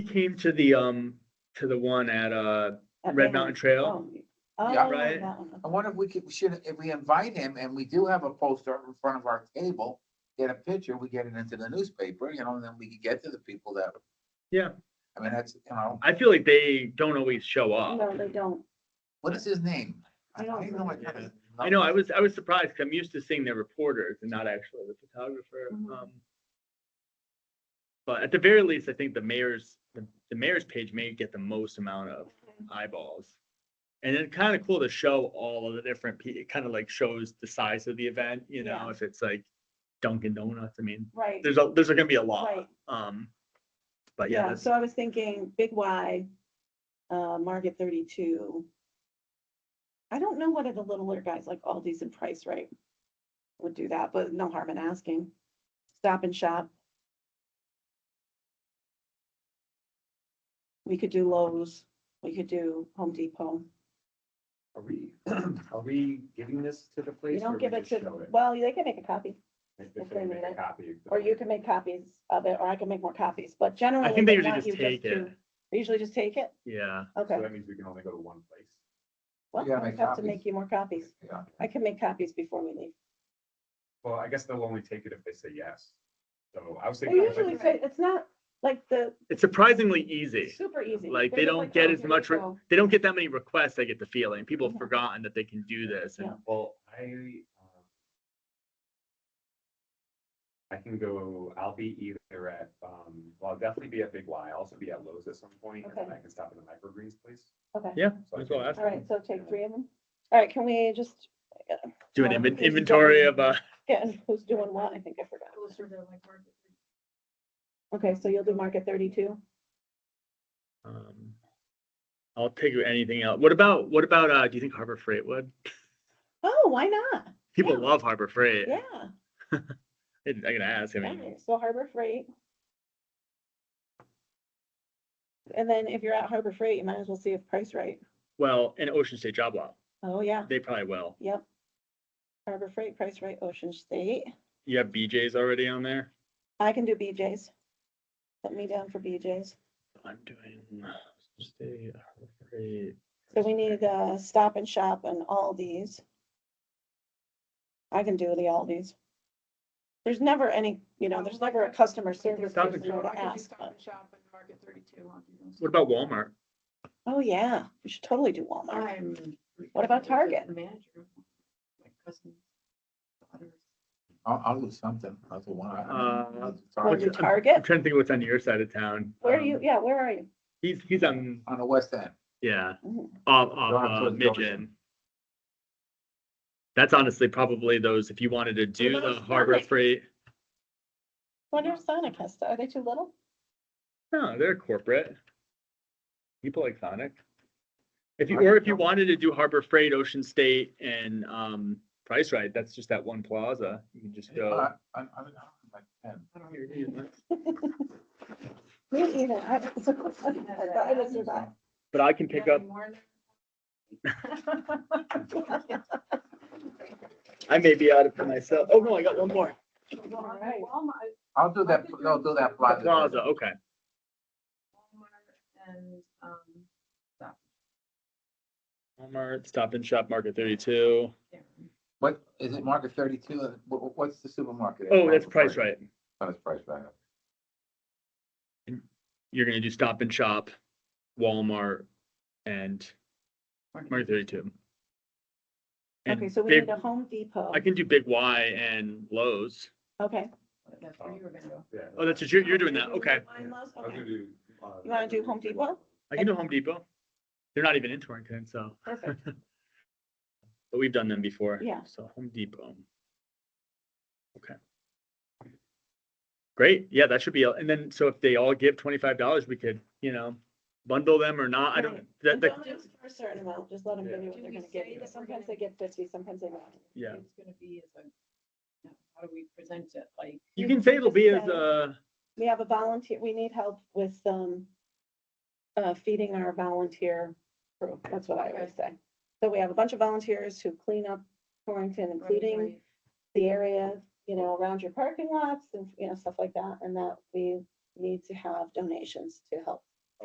came to the, um, to the one at, uh, At Red Mountain Trail. Oh, Yeah. oh, Right. that one, okay. I wonder if we could, should, if we invite him and we do have a poster in front of our table, get a picture, we get it into the newspaper, you know, and then we could get to the people that. Yeah. I mean, that's, you know, I feel like they don't always show up. No, they don't. what is his name? I don't even know what remember. kind of- I know, I was, I was surprised, 'cause I'm used to seeing their reporters and not actually the photographer. Mhm. um, But at the very least, I think the mayor's, the the mayor's page may get the most amount of eyeballs. And it's kind of cool to show all of the different, pe- it kind of like shows the size of the event, you know, Yeah. if it's like Dunkin' Donuts, I mean, Right, there's, a there's gonna be a lot. Right. Um, but yeah, yeah, that's, so I was thinking Big Y, uh, Market thirty-two. I don't know what are the littler guys like Aldi's and Price Right would do that, but no harm in asking. Stop and Shop. We could do Lowe's, we could do Home Depot. Are we, are we giving this to the place? You or don't we give it just to, show it? well, they can make a copy. If if they they make need a it. copy. Or you can make copies of it, or I can make more copies, Oh, but generally. I think they usually want just you take to- it, they Usually just take it? yeah. Okay. So that means we can only go to one place. Well, gotta I make have to copies. make you more copies. Yeah. I can make copies before we leave. Well, I guess they'll only take it if they say yes. So I was They thinking. like, usually say, it's not like the It's surprisingly easy. super easy. Like, they They're just don't get oh, as here much you re- go. They don't get that many requests, I get the feeling. People have Yeah. forgotten that they can do this and Yeah. Well, I, um, I can go, I'll be either at, um, well, I'll definitely be at Big Y, I'll also be at Lowe's at some point, and then Okay. I can stop in the microgreens place. Okay, Yeah, So that's what I can- I asked all right, so take three of them. All right, can we just do an Yeah, inven- because you don't inventory need- of, uh, get in who's doing what? I think I forgot. Okay, so you'll do market thirty-two? um, I'll take anything else. What about, what about, uh, do you think Harbor Freight would? Oh, why not? People Yeah. love Harbor Freight. Yeah, I I gotta ask, I mean, okay, so Harbor Freight. And then if you're at Harbor Freight, you might as well see if Price Right. well, and Ocean State Job Lot, Oh, yeah, they probably will. yep. Harbor Freight, Price Right, Ocean State. You have BJ's already on there? I can do BJ's. Put me down for BJ's. I'm doing uh, State Harbor Freight. So we need uh Stop and Shop and Aldi's. I can do the Aldi's. There's never any, you know, there's never a customer service Stop and person there to Shop. I could do ask. Stop and Shop and Market 32 I'll do those. What about Walmart? Oh, yeah, we should totally do Walmart. I'm. What about Target? The manager. of my cousin's daughter's I'll, I'll do something, that's the one. I- Uh, Or Sorry, do what's- I'm Target. trying to think of what's on your side of town. Where are you? Um, Yeah, where are you? He's, he's on, On the west end, yeah, Mhm. off, Going up off, uh, towards Jefferson. Midgen. That's honestly probably those, if you wanted to do about the Harbor Sonic? Freight, Wonder if Sonic has, to- are they too little? no, they're corporate. People like Sonic. If you, Market or if you Sonic. wanted to do Harbor Freight, Ocean State and, um, Price Right, that's just that one plaza. You can just go. But I- I- I don't like ten. Me either. I was I was surprised. But I can pick up, Saturday morning. I may be out of it myself. Oh, no, I got one more. Well, I Right. think Walmart, I'll do that, I'll do that plaza. Plaza, okay. Walmart and, um, Stop Walmart, Stop and Shop, Market thirty-two. and Shop. What, is it market thirty-two, what, what's the supermarket? Oh, that's Price Right. Oh, That's Price Right. You're gonna do Stop and Shop, Walmart, and Market thirty-two. And Okay, so we Big- need a Home Depot. I can do Big Y and Lowe's. Okay. That's where you were gonna go. Yeah. Oh, that's what you're, you're doing that. Okay. Mine was- I was okay. gonna do, uh, You wanna do Home Depot? I can do Home Depot. They're not even in Torrington, so, Perfect. but we've done them before. Yeah. So Home Depot. Okay. Great. Yeah, that should be, and then, so if they all give twenty-five dollars, we could, you know, bundle them or not. I don't, Right. that, And that, don't ask For a certain amount, just let them give you what Do they're we gonna say give you. that we're Sometimes gonna- they get fifty, sometimes they don't. yeah. It's gonna be as a, how do we present it, like? You You can can say it'll just be as say- a, We have a volunteer, we need help with, um, uh, feeding our volunteer crew. That's what I always say. So we have a bunch of volunteers who clean up Torrington, including the area, you know, around your parking lots and, you know, stuff like that. And that we need to have donations to help